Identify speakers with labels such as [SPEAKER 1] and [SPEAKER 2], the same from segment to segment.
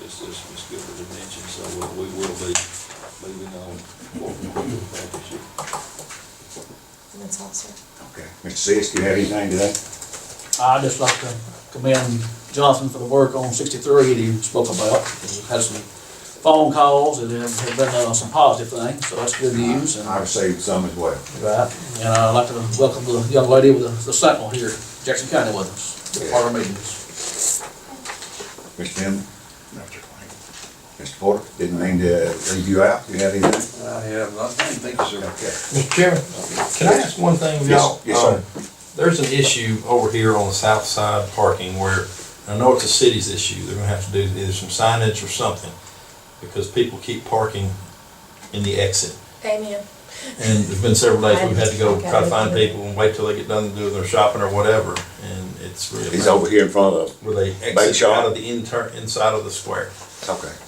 [SPEAKER 1] this, this Ms. Gifford had mentioned, so we we will be moving on forward with the partnership.
[SPEAKER 2] And that's all, sir.
[SPEAKER 3] Okay. Mr. Sis, do you have anything today?
[SPEAKER 4] I'd just like to commend Jonathan for the work on sixty-three that he spoke about. We've Had some phone calls and there have been uh, some positive things, so that's good news. And
[SPEAKER 3] I received some as well.
[SPEAKER 4] Right, and I'd like to welcome the young lady with the the sentinel here, Jackson County with us, to our meetings.
[SPEAKER 3] Mr. Tim? Mr. Porter, didn't mean to leave you out. Do you have anything?
[SPEAKER 1] I have nothing, thank you, sir.
[SPEAKER 3] Okay.
[SPEAKER 5] Mr. Chairman, can I ask one thing? of y'all?
[SPEAKER 3] Yes, yes, sir.
[SPEAKER 5] Um, There's an issue over here on the south side parking where, I know it's a city's issue, they're gonna have to do either some signage or something, because people keep parking in the exit.
[SPEAKER 2] Amen.
[SPEAKER 5] And there's been several days we've had to go
[SPEAKER 2] I-
[SPEAKER 5] try to find people and wait till they get done doing their shopping or whatever, and it's really.
[SPEAKER 3] He's over here in front of,
[SPEAKER 5] Where they
[SPEAKER 3] Bake
[SPEAKER 5] exit
[SPEAKER 3] shop.
[SPEAKER 5] out of the inter, inside of the square.
[SPEAKER 3] okay. That-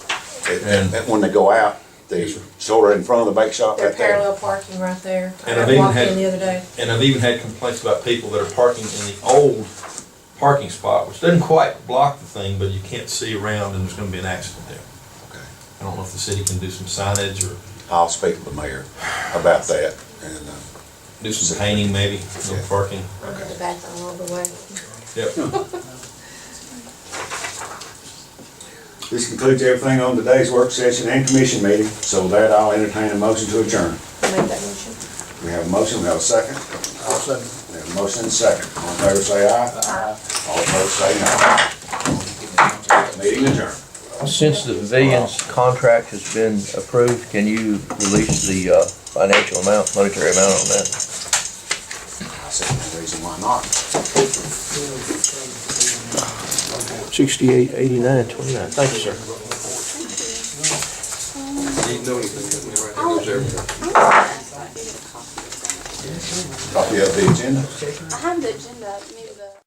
[SPEAKER 3] That,
[SPEAKER 5] And-
[SPEAKER 3] that when they go out, they sort of in front of the bake shop
[SPEAKER 2] They're
[SPEAKER 3] right there.
[SPEAKER 2] parallel parking right there.
[SPEAKER 5] And I
[SPEAKER 2] I
[SPEAKER 5] didn't
[SPEAKER 2] walked in
[SPEAKER 5] have-
[SPEAKER 2] the other day.
[SPEAKER 5] And I've even had complaints about people that are parking in the old parking spot, which doesn't quite block the thing, but you can't see around and there's gonna be an accident there.
[SPEAKER 3] Okay.
[SPEAKER 5] I don't know if the city can do some signage or
[SPEAKER 3] I'll speak to the mayor about that and, uh,
[SPEAKER 5] do some painting maybe, no
[SPEAKER 3] Yeah.
[SPEAKER 5] parking.
[SPEAKER 2] I'm in the back all the way.
[SPEAKER 5] Yep.
[SPEAKER 3] this concludes everything on today's work session and commission meeting. So with that, I'll entertain a motion to adjourn.
[SPEAKER 2] Make that motion.
[SPEAKER 3] We have a motion, we have a second.
[SPEAKER 4] I'll second.
[SPEAKER 3] We have a motion and a second. All in favor, say aye. All opposed, say no. Meeting adjourned.
[SPEAKER 6] Since the pavilions contract has been approved, can you release the uh, financial amount, monetary amount on that?
[SPEAKER 3] I said, no reason why not.
[SPEAKER 6] Sixty-eight, eighty-nine, twenty-nine. Thank you, sir.
[SPEAKER 3] Copy of the agenda.
[SPEAKER 7] I have the agenda, maybe the.